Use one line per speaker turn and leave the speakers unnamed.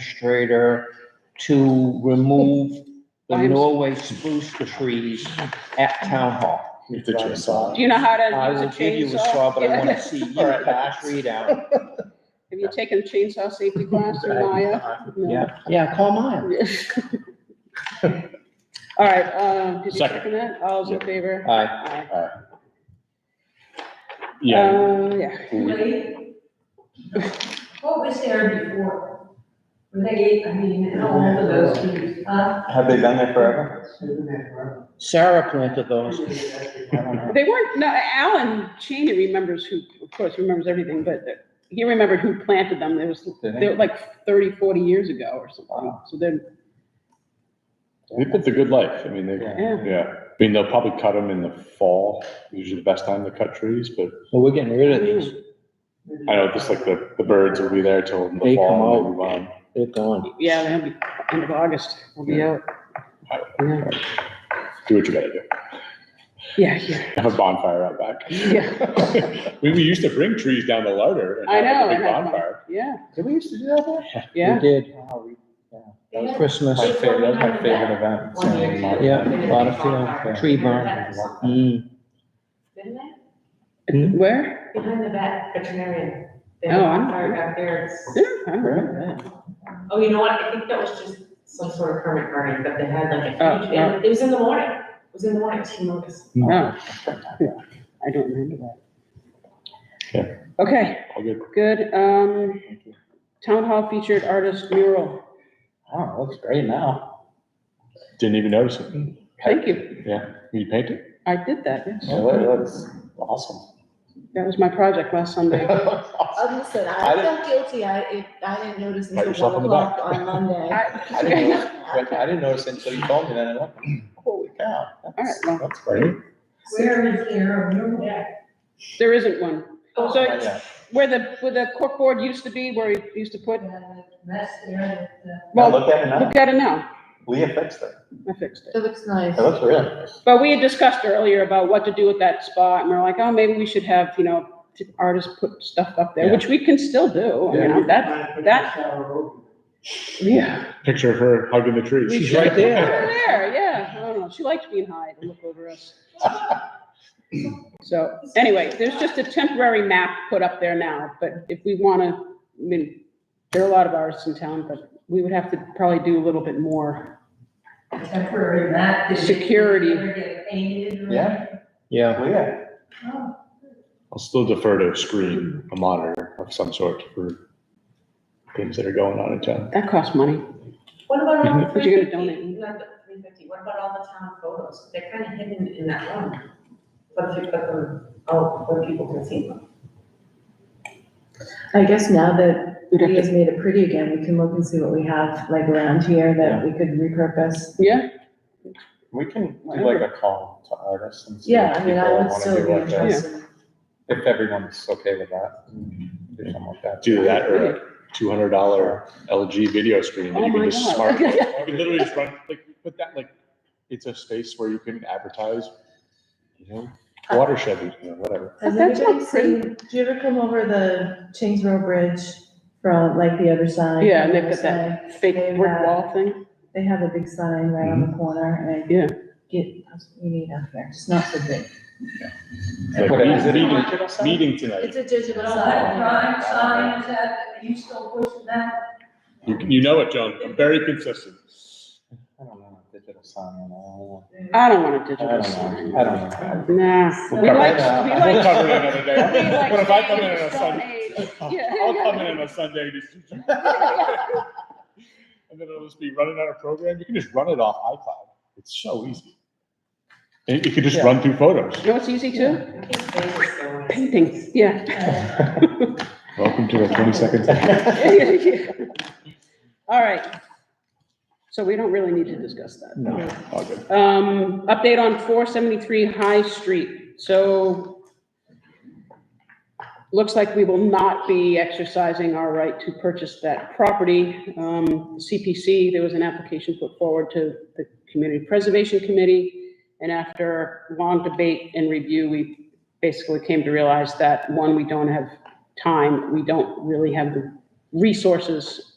administrator to remove the
I'm-
Norway spruce trees at town hall.
With the chainsaw.
Do you know how
I
to
will
use a
give you a
chainsaw?
saw, but I
Yeah.
want to see you
All right.
cut that tree down.
Have you taken chainsaw safety class in Maya? No.
Yeah, yeah, call mine.
All right, uh, did you
Second.
second that? All's in
Yeah.
favor?
Aye.
Aye.
Yeah,
Uh, yeah,
Wait. What was there before? Were they, I mean, how old are those trees, huh?
Have they been there forever?
Sarah planted those.
they weren't, no, Alan Cheney remembers who, of course, remembers everything, but he remembered who planted them. There was,
Did
they were like 30, 40 years ago or something. So then,
they've lived a good life. I mean, they,
Yeah.
yeah. I mean, they'll probably cut them in the fall, usually the best time to cut trees, but
Well, we're getting rid of these.
I know just like the, the birds will be there till the
They come
fall. and
out.
they move on.
They're gone.
yeah, they'll be, end of August, we'll be out. Yeah,
Do what you gotta do.
yeah, yeah.
Have a bonfire out back. We, we used to bring trees down to Larder and
I
have
know.
like a big
and I-
bonfire.
Yeah,
Did we used to do that there?
yeah.
We did.
They had
Christmas,
My favorite, that was my favorite event.
one year.
So,
Yeah,
They had a
lot of
big
field,
bonfire.
tree burn.
Behind the vet.
Mm.
Didn't
Hmm?
Where?
they? Behind the vet veterinarian. They
Oh,
had a
I'm-
bonfire back there. It's-
Yeah, I remember that.
Oh, you know what, I think that was just some sort of permit burning, but they had like
Oh,
a huge, and it was in the morning, it was in the morning, she noticed.
Oh, yeah, I don't remember
Yeah.
that. Okay,
All good.
good. Um, town hall featured artist mural.
Oh, it looks great now.
Didn't even notice it.
Thank you.
You paint it?
I did that, yes.
It looks awesome.
That was my project last Sunday.
Listen,
I
I
didn't-
felt guilty, I, it, I didn't notice
Pat
until
yourself
one
on the back.
o'clock on Monday.
I didn't
I-
notice, when- I didn't notice until you told me that, and I'm like, holy cow. that's-
All right,
That's great.
Where is there a room deck?
There isn't one.
Oh,
So
Yeah.
where the, where the corkboard used to be, where we used to put,
That's there,
Now
well,
look at it now.
look at it now.
Leah fixed it.
I fixed it.
uh,
It looks nice.
It looks really nice.
But we had discussed earlier about what to do with that spot, and we we're like, oh, maybe we should have, you know, t- artists put stuff up there,
Yeah.
which we can still do, you know, that, that. Yeah.
Picture of her hugging the tree.
We
She's right
Over
there.
there, yeah, I don't know, she likes being high to look over us. So, anyway, there's just a temporary map put up there now, but if we wanna, I mean, there are a lot of artists in town, but we would have to probably do a little bit more.
the temporary mat. did it-
Security.
did it get painted or-
Yeah.
Yeah,
Leah.
Oh,
I'll still defer to a screen, a monitor of some sort for things that are going on in town.
That costs money.
What about all the
But you're
three
gonna donate.
fifty, not the three fifty, what about all the town photos? They're kind of hidden in that room. But if you put them out where people can see them.
I guess now that
We'd have to-
Leah's made it pretty again, we can look and see what we have like around here that we could repurpose.
Yeah,
We can do like a call to artists and see
Yeah,
if
I mean,
people
I would
want to
still
do
be
like that.
interested.
If everyone's okay with that. Do something like that.
Either that or a two hundred dollar LG video screen that
Oh
you can
my
just
God.
smart. You can literally just run, like, put that, like, it's a space where you can advertise, you know, watershed, you know, whatever.
Has
That's all
anybody seen, do you ever come over the Chains Row Bridge from like the other side?
yeah, and
from the
they've got
other
that
side?
fake
They've
brick
got-
wall thing.
They have a big sign right on the corner and.
Yeah.
Get, you need up there, it's not so big.
Like,
But is it a
meeting,
digital sign?
meeting tonight.
a digital
that, you still pushing that?
You, you know it, John. I'm very consistent.
I don't know, digital sign, I don't
I don't want a
know.
digital
I don't
sign.
know, I don't know.
Nah.
We'll
We
cover
like,
it.
we
We'll
We'll
like.
cover it another
we
day.
like
But if I come in on
staying
a
Stone
Sunday,
Age. Yeah,
I'll come in
yeah.
on a Sunday to see you. And then it'll just be running out of program. You can just run it off iCloud. It's so easy. And you can just
Yeah.
run through photos.
You know what's easy too?
I think they just go in.
Painting, yeah.
Welcome to the twenty seconds.
All right. So we don't really need to discuss that.
No.
All good.
Um, update on four seventy-three High Street, so looks like we will not be exercising our right to purchase that property. Um, CPC, there was an application put forward to the Community Preservation Committee, and after long debate and review, we basically came to realize that, one, we don't have time, we don't really have the resources